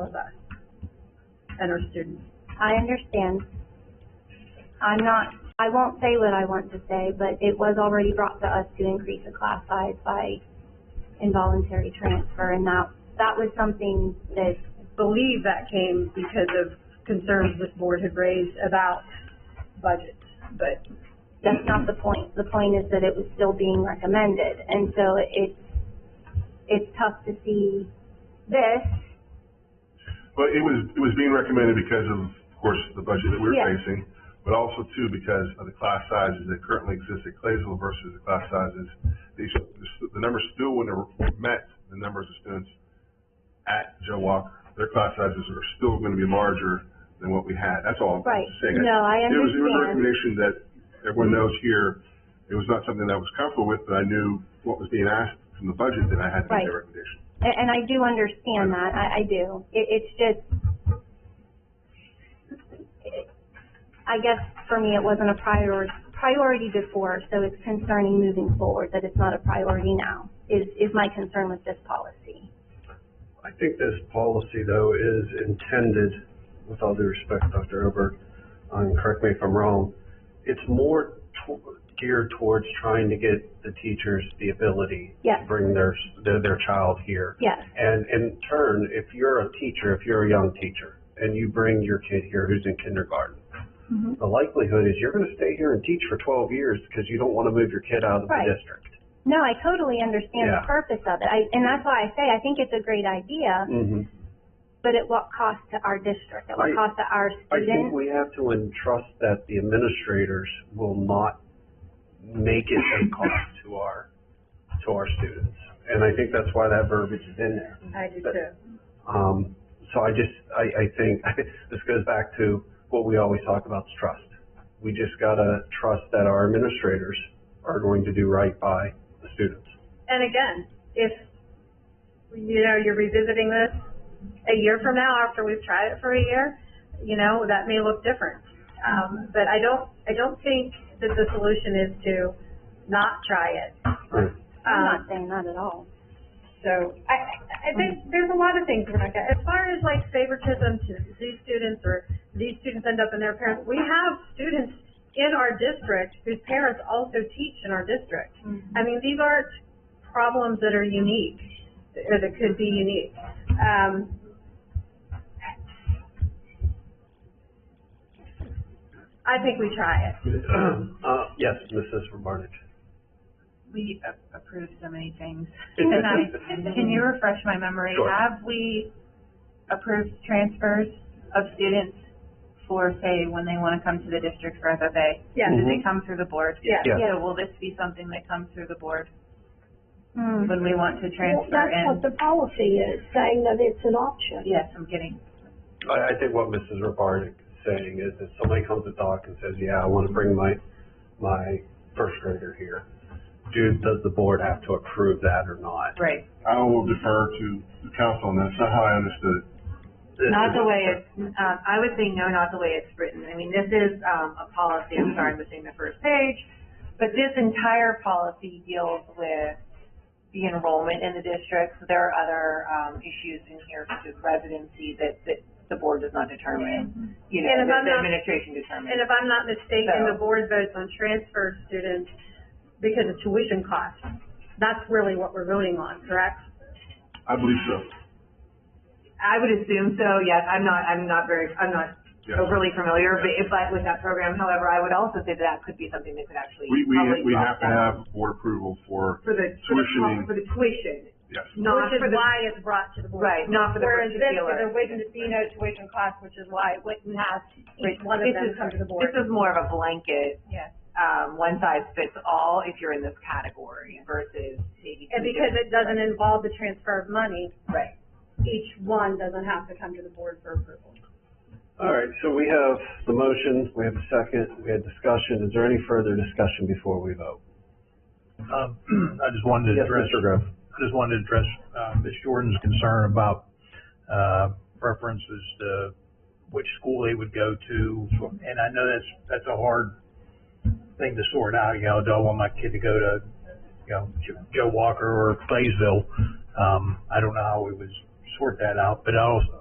with us and our students. I understand. I'm not, I won't say what I want to say, but it was already brought to us to increase the class size by involuntary transfer, and that, that was something that, Believe that came because of concerns this board had raised about budgets, but that's not the point. The point is that it was still being recommended, and so it's, it's tough to see this, But it was, it was being recommended because of, of course, the budget that we're Yeah. facing, but also too because of the class sizes that currently exist at Claysville versus the class sizes. These, the stu- the numbers still wouldn't have met the numbers of students at Joe Walker. Their class sizes are still gonna be larger than what we had. That's all I'm Right. saying. No, I It was, it was a understand. recommendation that everyone knows here, it was not something that I was comfortable with, but I knew what was being asked from the budget that I had to make Right. that recommendation. a- and, I do understand that, I, I do. It, it's just, I guess for me, it wasn't a prior, priority before, so it's concerning moving forward that it's not a priority now, is, is my concern with this policy. I think this policy, though, is intended, with all due respect, Dr. Oberg, and correct me if I'm wrong, it's more to- geared towards trying to get the teachers the ability Yes. to bring their, s- their, their child here. Yes. And in turn, if you're a teacher, if you're a young teacher, and you bring your kid here who's in kindergarten, Mm-hmm. the likelihood is you're gonna stay here and teach for twelve years because you don't wanna move your kid out of Right. the district. No, I totally understand the Yeah. purpose of it, I, and that's why I say, I think it's a great idea, Mm-hmm. but at what cost to our district, at what I- cost to our I students? think we have to entrust that the administrators will not make it a cost to our, to our students. And I think that's why that verbiage is in there. I do too. Um, so I just, I, I think, this goes back to what we always talk about is trust. We just gotta trust that our administrators are going to do right by the students. And again, if, you know, you're revisiting this a year from now after we've tried it for a year, you know, that may look different. Um, but I don't, I don't think that the solution is to not try it. Right. Um, I'm not saying that at all. So I, I- I think there's a lot of things, Rebecca. As far as like favoritism to these students or these students end up in their parents, we have students in our district whose parents also teach in our district. I mean, these aren't problems that are unique, or that could be unique. Um, I think we try it. Uh, yes, Mrs. Barnett. we a- approve so many things. And I, can you refresh my memory? Sure. Have we approved transfers of students for, say, when they want to come to the district for FFA? Yeah. Do they come through the board? Mm-hmm. Yeah. Yeah. So will this be something that comes through the board Hmm. when we want to Well, transfer That's in? what the policy is, saying that it's an option. Yes, I'm kidding. I, I think what Mrs. Rabarnik is saying is if somebody comes to Doc and says, yeah, I want to bring my, my first grader here, do, does the board have to approve that or not? Right. I will defer to the council on that. That's not how I understood it. Not the way it's, um, I would say no, not the way it's written. I mean, this is, um, a policy, I'm sorry, I'm missing the first page, but this entire policy deals with the enrollment in the district. So There are other, um, issues in here such as residency that, that the board does not determine, you know, And if that I'm the not- administration determines. And if I'm not mistaken, So- the board votes on transfer students because of tuition costs. That's really what we're voting on, correct? I believe so. I would assume so, yes. I'm not, I'm not very, I'm not Yes. overly familiar, but if, but with that program, however, I would also say that that could be something that could actually. We, we, probably we have drop to down. have board approval for, For the, for the, tuitioning. co- for the tuition, yes. not Which for is the, why it's brought to the board. right, not for the Whereas this, there particular. wouldn't be no tuition costs, which is why it wouldn't have each one of This them is- come to the This board. is more of a blanket, Yes. um, one size fits all if you're in this category versus maybe. And two because different- it doesn't involve the transfer of money, Right. each one doesn't have to come to the board for approval. All right, so we have the motion, we have a second, we had discussion. Is there any further discussion before we vote? Um, I just wanted to Yes, address, Mr. Griff. I just wanted to address, uh, Ms. Jordan's concern about, uh, preferences to which school they would go to. And I know that's, that's a hard thing to sort out, you know, do I want my kid to go to, you know, Jo- Joe Walker or Claysville? Um, I don't know how we would sort that out, but I also,